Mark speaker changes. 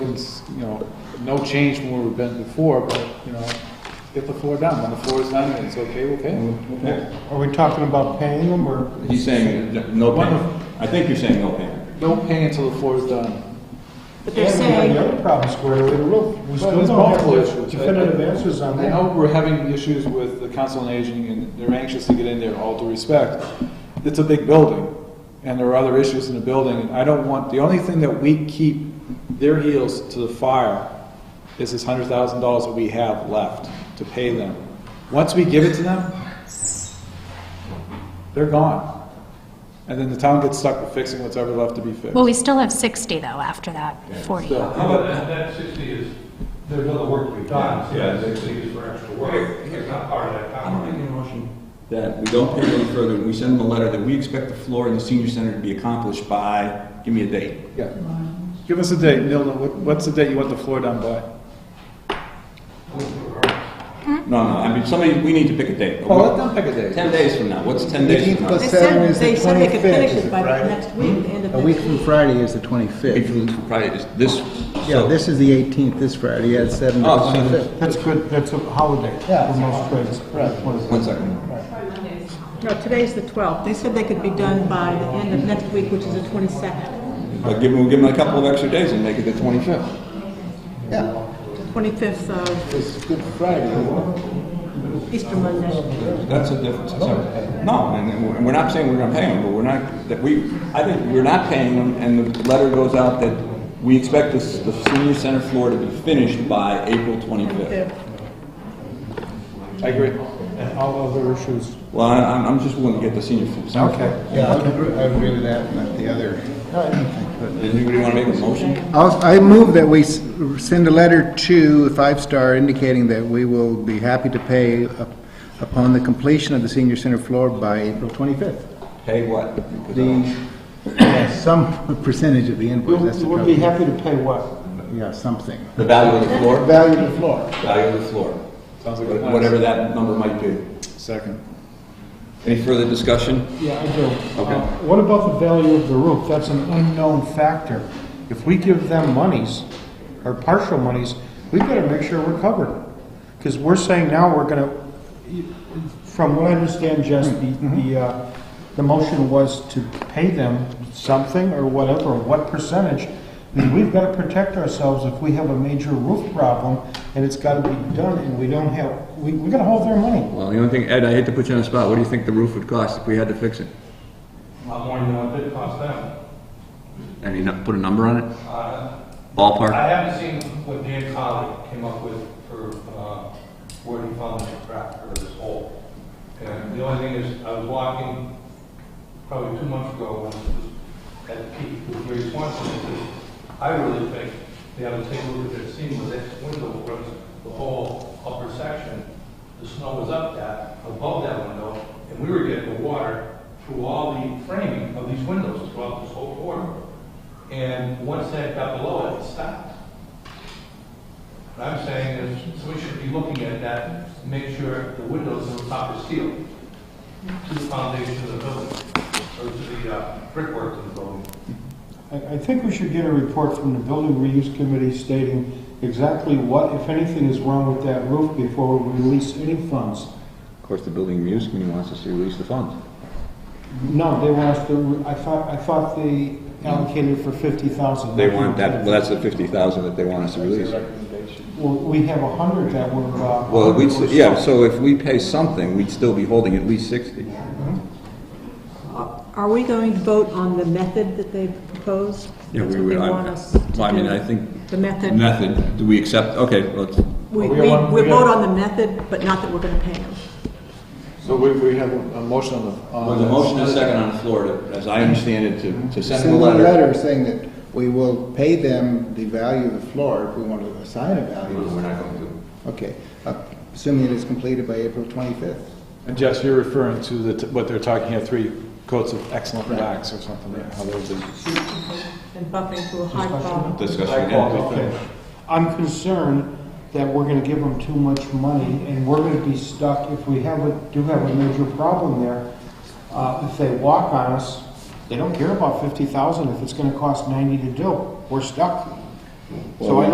Speaker 1: building's, you know, no change from where we've been before, but, you know, get the floor down. When the floor is done and it's okay, okay.
Speaker 2: Are we talking about paying them or?
Speaker 3: He's saying n- no payment. I think you're saying no payment.
Speaker 1: Don't pay until the floor is done.
Speaker 4: But they're
Speaker 2: And we have
Speaker 4: saying,
Speaker 2: the other problem squarely, the roof. We still
Speaker 1: there's multiple
Speaker 2: don't have
Speaker 1: issues.
Speaker 2: definitive answers on
Speaker 1: I
Speaker 2: that.
Speaker 1: know we're having issues with the council on aging and they're anxious to get in there, all due respect. It's a big building and there are other issues in the building and I don't want, the only thing that we keep their heels to the fire is this hundred thousand dollars that we have left to pay them. Once we give it to them, they're gone. And then the town gets stuck with fixing what's ever left to be fixed.
Speaker 4: well, we still have 60 though after that, 40.
Speaker 1: So-
Speaker 5: How about that, that sixty is, there's other work we've done, so that sixty is for extra work, it's not part of that
Speaker 3: I'm
Speaker 5: contract.
Speaker 3: making a motion that we don't pay any further, we send them a letter that we expect the floor in the senior center to be accomplished by, give me a date.
Speaker 1: Yeah. Give us a date, Neil, what- what's the date you want the floor done by?
Speaker 3: No, no, I mean, somebody, we need to pick a date.
Speaker 1: Well, Oh, let them pick a date.
Speaker 3: Ten days from now, what's ten days from now?
Speaker 6: They said, they said they could finish it by the next week, the end of
Speaker 7: A week
Speaker 6: next
Speaker 7: from
Speaker 6: week.
Speaker 7: Friday is the
Speaker 3: Wait
Speaker 7: 25th.
Speaker 3: till Friday, is this,
Speaker 7: Yeah,
Speaker 3: so-
Speaker 7: this is the 18th, this Friday, yeah, it's 7 to
Speaker 3: Oh, so
Speaker 7: 25th.
Speaker 2: That's good, that's a holiday for most trades.
Speaker 3: one second.
Speaker 6: No, today's the 12th. They said they could be done by the end of next week, which is the 22nd.
Speaker 3: But give them, give them a couple of extra days and make it the twenty-fifth.
Speaker 7: Yeah,
Speaker 6: The 25th of
Speaker 7: it's Good Friday.
Speaker 6: Easter Monday.
Speaker 3: That's a difference. So, No, and- and we're- and we're not saying we're gonna pay them, but we're not, that we, I think we're not paying them, and the letter goes out that we expect this, the senior center floor to be finished by April twenty-fifth.
Speaker 1: I agree.
Speaker 2: And all other issues.
Speaker 3: Well, I- I'm, I'm just willing to get the senior f- center. floor.
Speaker 7: Yeah, I would agree- I would agree with that, not the other.
Speaker 3: Does anybody wanna make a motion?
Speaker 7: I'll- I move that we s- send a letter to Five Star indicating that we will be happy to pay up- upon the completion of the senior center floor by April 25th.
Speaker 3: Pay what? Because I
Speaker 7: The,
Speaker 3: don't-
Speaker 7: yeah, some percentage of the
Speaker 2: We'll,
Speaker 7: invoice, that's the
Speaker 2: we'll be
Speaker 7: problem.
Speaker 2: happy to pay what?
Speaker 7: Yeah, something.
Speaker 3: The value of the floor?
Speaker 7: Value of the floor.
Speaker 3: Value of the floor.
Speaker 1: Sounds like a plan.
Speaker 3: Whatever that number might be.
Speaker 1: Second.
Speaker 3: Any further discussion?
Speaker 2: Yeah, I do.
Speaker 3: Okay.
Speaker 2: Uh, What about the value of the roof? That's an unknown factor. If we give them monies, or partial monies, we better make sure we're covered. Because we're saying now we're gonna, from what I understand, Jess, the, the, uh, the motion was to pay them something or whatever, what percentage. I mean, We've gotta protect ourselves if we have a major roof problem, and it's gotta be done, and we don't have, we, we gotta hold their money.
Speaker 3: Well, the only thing, Ed, I hate to put you on the spot, what do you think the roof would cost if we had to fix it?
Speaker 5: A lot more than what it cost them.
Speaker 3: And you put a number on it?
Speaker 5: Uh,
Speaker 3: Ballpark?
Speaker 5: I haven't seen what Dan Colley came up with for, uh, where he found this crack or this hole. And the only thing is, I was walking probably two months ago when it was at peak with Ray Swanson. and he said, I really think they have to take a look at that seam with that window runs the whole upper section. The snow was up that, above that window, and we were getting the water through all the framing of these windows throughout this whole corridor. And once that got below it, it stopped. What I'm saying is, we should be looking at that, to make sure the windows are proper sealed to the foundation of the building, or to the uh, brickwork of the building.
Speaker 2: I, I think we should get a report from the building reuse committee stating exactly what, if anything, is wrong with that roof before we release any funds.
Speaker 3: Of course, the building reuse committee wants us to release the funds.
Speaker 2: No, they want us to, I thought, I thought they allocated for fifty thousand.
Speaker 3: They want that, well, that's the fifty thousand that they want us to release.
Speaker 2: Well, we have a hundred that were, uh.
Speaker 3: Well, we, yeah, so if we pay something, we'd still be holding at least sixty.
Speaker 6: Are are we going to vote on the method that they proposed?
Speaker 3: Yeah,
Speaker 6: That's
Speaker 3: we
Speaker 6: what
Speaker 3: would,
Speaker 6: they
Speaker 3: I-
Speaker 6: want us to
Speaker 3: well, I mean,
Speaker 6: do.
Speaker 3: I think-
Speaker 6: The method.
Speaker 3: Method, do we accept, okay, let's,
Speaker 6: We,
Speaker 1: We
Speaker 6: we,
Speaker 1: want-
Speaker 6: we
Speaker 1: we
Speaker 6: vote
Speaker 1: gotta-
Speaker 6: on the method, but not that we're gonna pay them.
Speaker 1: So we, we have a motion on the. on
Speaker 3: well, the
Speaker 1: this.
Speaker 3: motion is second on the floor, to- as I understand it, to, to send
Speaker 7: Send
Speaker 3: them
Speaker 7: them
Speaker 3: a letter.
Speaker 7: saying that we will pay them the value of the floor if we want to assign a
Speaker 3: No,
Speaker 2: Mm-hmm.
Speaker 7: value.
Speaker 3: We're not going to.
Speaker 7: Okay, uh, assuming it is completed by April 25th.
Speaker 1: And Jess, you're referring to the, t- what they're talking here, three coats of excellent wax or something, like how those are.
Speaker 6: And bumping to a high bar.
Speaker 3: Discussion again.
Speaker 2: Okay. I'm concerned that we're gonna give them too much money, and we're gonna be stuck if we have a, do have a major problem there. Uh, if they walk on us, they don't care about fifty thousand if it's gonna cost ninety to do. We're stuck. So I